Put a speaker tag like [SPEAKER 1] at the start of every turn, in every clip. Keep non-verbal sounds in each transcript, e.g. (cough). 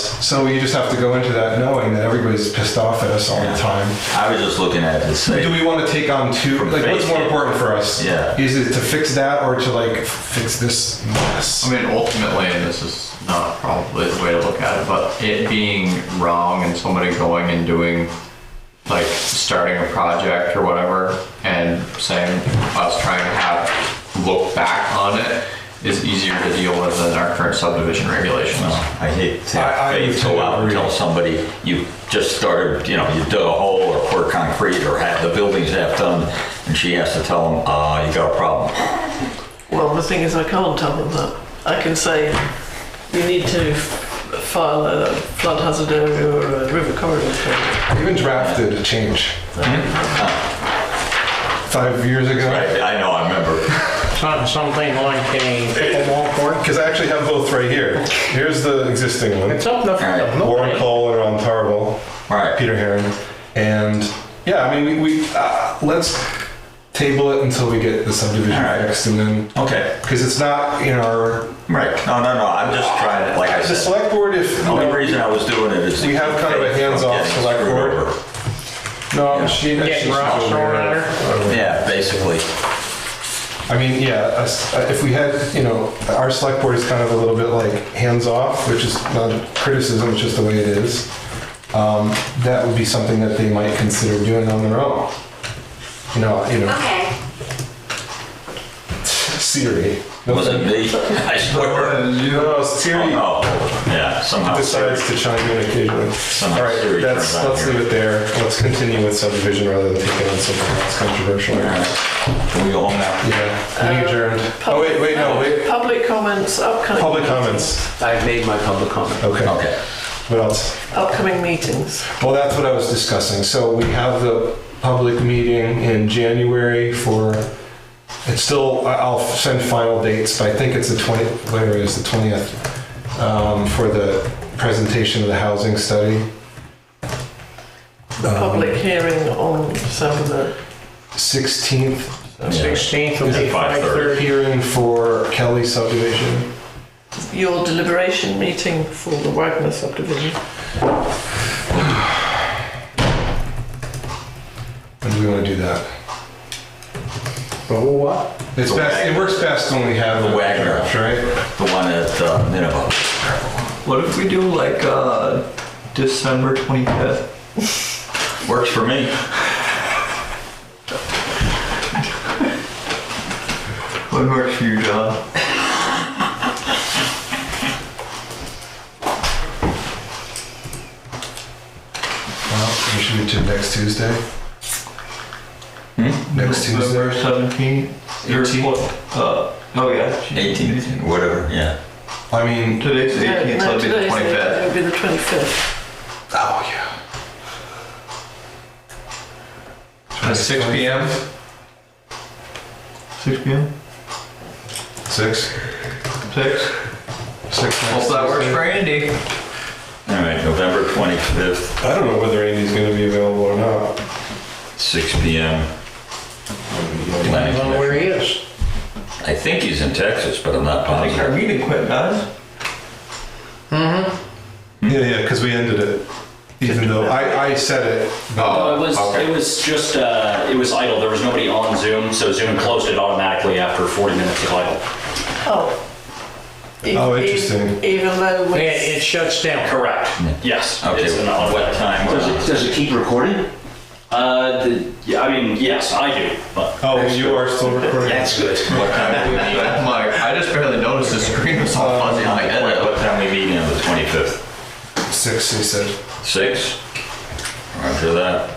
[SPEAKER 1] So you just have to go into that knowing that everybody's pissed off at us all the time.
[SPEAKER 2] I was just looking at it to say,
[SPEAKER 1] Do we want to take on two?
[SPEAKER 2] From
[SPEAKER 1] Like, what's
[SPEAKER 2] face,
[SPEAKER 1] more
[SPEAKER 2] yeah.
[SPEAKER 1] important for us?
[SPEAKER 2] Yeah.
[SPEAKER 1] Is it to fix that or to like fix this mess?
[SPEAKER 3] I mean, ultimately, and this is not probably the way to look at it, but it being wrong and somebody going and doing, like, starting a project or whatever, and saying us trying to have look back on it is easier to deal with than our current subdivision regulations.
[SPEAKER 2] I hate to
[SPEAKER 1] I- I
[SPEAKER 2] have
[SPEAKER 1] do
[SPEAKER 2] faith go out and
[SPEAKER 1] agree.
[SPEAKER 2] tell somebody you just started, you know, you dug a hole or poured concrete or had the buildings half done, and she has to tell them, uh, you got a problem.
[SPEAKER 4] Well, the thing is, I can't tell them that. I can say you need to f- file a flood hazard area or a river corridor permit.
[SPEAKER 1] Even drafted a change
[SPEAKER 2] Mm-hmm.
[SPEAKER 1] five years ago.
[SPEAKER 2] I, I know, I remember.
[SPEAKER 5] Some- Something like a,
[SPEAKER 1] Pickleball court. Because I actually have both right here. Here's the existing one.
[SPEAKER 5] it's up in the front of
[SPEAKER 1] Warren
[SPEAKER 5] nobody.
[SPEAKER 1] Cole and Ron Tarble,
[SPEAKER 2] All right,
[SPEAKER 1] Peter Heron, and yeah, I mean, we, we uh, let's table it until we get the subdivision
[SPEAKER 2] All right.
[SPEAKER 1] fixed, and then
[SPEAKER 2] okay,
[SPEAKER 1] because it's not in our
[SPEAKER 2] right. No, no, no, I'm just trying to, like I
[SPEAKER 1] the
[SPEAKER 2] said,
[SPEAKER 1] select board. If
[SPEAKER 2] the only reason I was doing it is. to
[SPEAKER 1] We have
[SPEAKER 2] keep
[SPEAKER 1] kind of a
[SPEAKER 2] faith from
[SPEAKER 1] hands-off
[SPEAKER 2] getting
[SPEAKER 1] select
[SPEAKER 2] screwed
[SPEAKER 1] board.
[SPEAKER 2] over.
[SPEAKER 1] no, she,
[SPEAKER 5] Get
[SPEAKER 1] she's
[SPEAKER 5] rocks
[SPEAKER 1] over
[SPEAKER 5] thrown
[SPEAKER 1] there.
[SPEAKER 5] at
[SPEAKER 2] Yeah, basically.
[SPEAKER 1] I mean, yeah, us, uh, if we had, you know, our select board is kind of a little bit like hands off, which is not a criticism, it's just the way it is. Um, that would be something that they might consider doing on their own. You know, you know,
[SPEAKER 6] Okay.
[SPEAKER 1] Siri.
[SPEAKER 2] Was it me?
[SPEAKER 1] (laughs)
[SPEAKER 2] I swear.
[SPEAKER 1] No, Siri
[SPEAKER 2] Oh, yeah, somehow.
[SPEAKER 1] decides to chime in occasionally. All right,
[SPEAKER 2] Siri
[SPEAKER 1] that's,
[SPEAKER 2] turns on
[SPEAKER 1] let's
[SPEAKER 2] here.
[SPEAKER 1] leave it there. Let's continue with subdivision rather than taking on something that's controversial.
[SPEAKER 2] All right. Can we go home now?
[SPEAKER 1] Yeah,
[SPEAKER 4] Uh,
[SPEAKER 1] meeting adjourned. Oh, wait, wait, no, wait.
[SPEAKER 4] Public comments, upcoming.
[SPEAKER 1] Public comments.
[SPEAKER 7] I've made my public comment.
[SPEAKER 1] Okay,
[SPEAKER 2] Okay.
[SPEAKER 1] what else?
[SPEAKER 4] Upcoming meetings.
[SPEAKER 1] Well, that's what I was discussing. So we have the public meeting in January for, it's still, I- I'll send final dates, but I think it's the 20, whatever it is, the 20th, um, for the presentation of the housing study. Um,
[SPEAKER 4] The public hearing on December the
[SPEAKER 1] 16th
[SPEAKER 5] 16th will
[SPEAKER 2] Is
[SPEAKER 5] be
[SPEAKER 2] it 5:30?
[SPEAKER 5] 5:30.
[SPEAKER 1] hearing for Kelly subdivision.
[SPEAKER 4] your deliberation meeting for the Wagner subdivision.
[SPEAKER 1] When do we want to do that?
[SPEAKER 7] Oh, what?
[SPEAKER 1] It's
[SPEAKER 2] The
[SPEAKER 1] best, it
[SPEAKER 2] Wagner.
[SPEAKER 1] works best when we have
[SPEAKER 2] The
[SPEAKER 1] the
[SPEAKER 2] Wagner.
[SPEAKER 1] Wagner, right?
[SPEAKER 2] The one at uh, Nineveh.
[SPEAKER 3] What if we do like uh, December 25th?
[SPEAKER 2] Works for me.
[SPEAKER 3] What works for you, John?
[SPEAKER 1] Well, we should do it next Tuesday. Next Tuesday.
[SPEAKER 3] November 17th? Or
[SPEAKER 1] 18th?
[SPEAKER 3] what, Uh, oh, yeah.
[SPEAKER 2] 18th, whatever, yeah.
[SPEAKER 1] I mean,
[SPEAKER 3] Today's the 18th, so
[SPEAKER 4] No,
[SPEAKER 3] it'll be the
[SPEAKER 4] today's It
[SPEAKER 3] 25th.
[SPEAKER 4] would be the 25th.
[SPEAKER 1] oh, yeah.
[SPEAKER 3] At 6 p.m.? 6 p.m.?
[SPEAKER 1] Six?
[SPEAKER 3] 6?
[SPEAKER 1] Six
[SPEAKER 3] Hope that works for Andy.
[SPEAKER 2] All right, November 25th,
[SPEAKER 1] I don't know whether Andy's going to be available or not.
[SPEAKER 2] 6 PM.
[SPEAKER 5] Depends on where he is.
[SPEAKER 2] I think he's in Texas, but I'm not
[SPEAKER 3] I think our
[SPEAKER 2] positive.
[SPEAKER 3] meeting quit, guys.
[SPEAKER 1] Yeah, yeah, because we ended it. Even though I, I said it.
[SPEAKER 7] No, Oh, it was,
[SPEAKER 1] okay.
[SPEAKER 7] it was just, uh, it was idle. There was nobody on Zoom, so Zoom closed it automatically after 40 minutes of idle.
[SPEAKER 4] Oh. E-
[SPEAKER 1] Oh,
[SPEAKER 4] e-
[SPEAKER 1] interesting.
[SPEAKER 4] Even though
[SPEAKER 5] It-
[SPEAKER 4] it's
[SPEAKER 5] It shuts
[SPEAKER 7] (laughs)
[SPEAKER 5] down.
[SPEAKER 7] Correct. Yes. it
[SPEAKER 2] Okay,
[SPEAKER 7] is an automatic.
[SPEAKER 2] what time was it?
[SPEAKER 7] it keep recording? Uh, the, yeah, I mean, yes, I do, but
[SPEAKER 1] Oh, you are still recording.
[SPEAKER 7] that's good.
[SPEAKER 2] What (laughs) time we meet?
[SPEAKER 3] I'm like, I just barely noticed the screen was all fuzzy. I'm like,
[SPEAKER 2] What
[SPEAKER 3] "Eh,
[SPEAKER 2] what time we meeting on the 25th?
[SPEAKER 1] Six, he said.
[SPEAKER 2] 6? After that,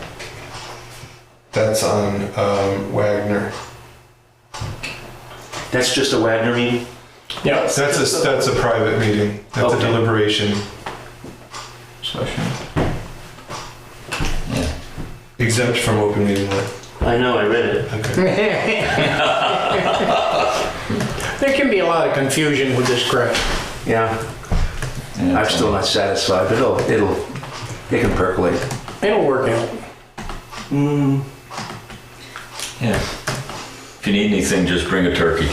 [SPEAKER 1] That's on um, Wagner.
[SPEAKER 7] That's just a Wagner meeting?
[SPEAKER 5] Yeah.
[SPEAKER 1] That's a that's a private meeting. That's a
[SPEAKER 7] Okay.
[SPEAKER 1] deliberation.
[SPEAKER 3] Session.
[SPEAKER 2] yeah.
[SPEAKER 1] Exempt from open meeting law.
[SPEAKER 7] I know, I read it.
[SPEAKER 1] Okay.
[SPEAKER 5] There can be a lot of confusion with this crap.
[SPEAKER 7] Yeah,
[SPEAKER 2] Yeah,
[SPEAKER 7] I'm still not satisfied, but it'll, it'll, it can percolate.
[SPEAKER 5] It'll work out.
[SPEAKER 2] Yeah. If you need anything, just bring a turkey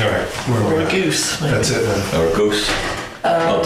[SPEAKER 1] All right. Where
[SPEAKER 4] or
[SPEAKER 1] were
[SPEAKER 4] a
[SPEAKER 1] we?
[SPEAKER 4] goose. maybe.
[SPEAKER 1] That's it then.
[SPEAKER 2] or a goose. But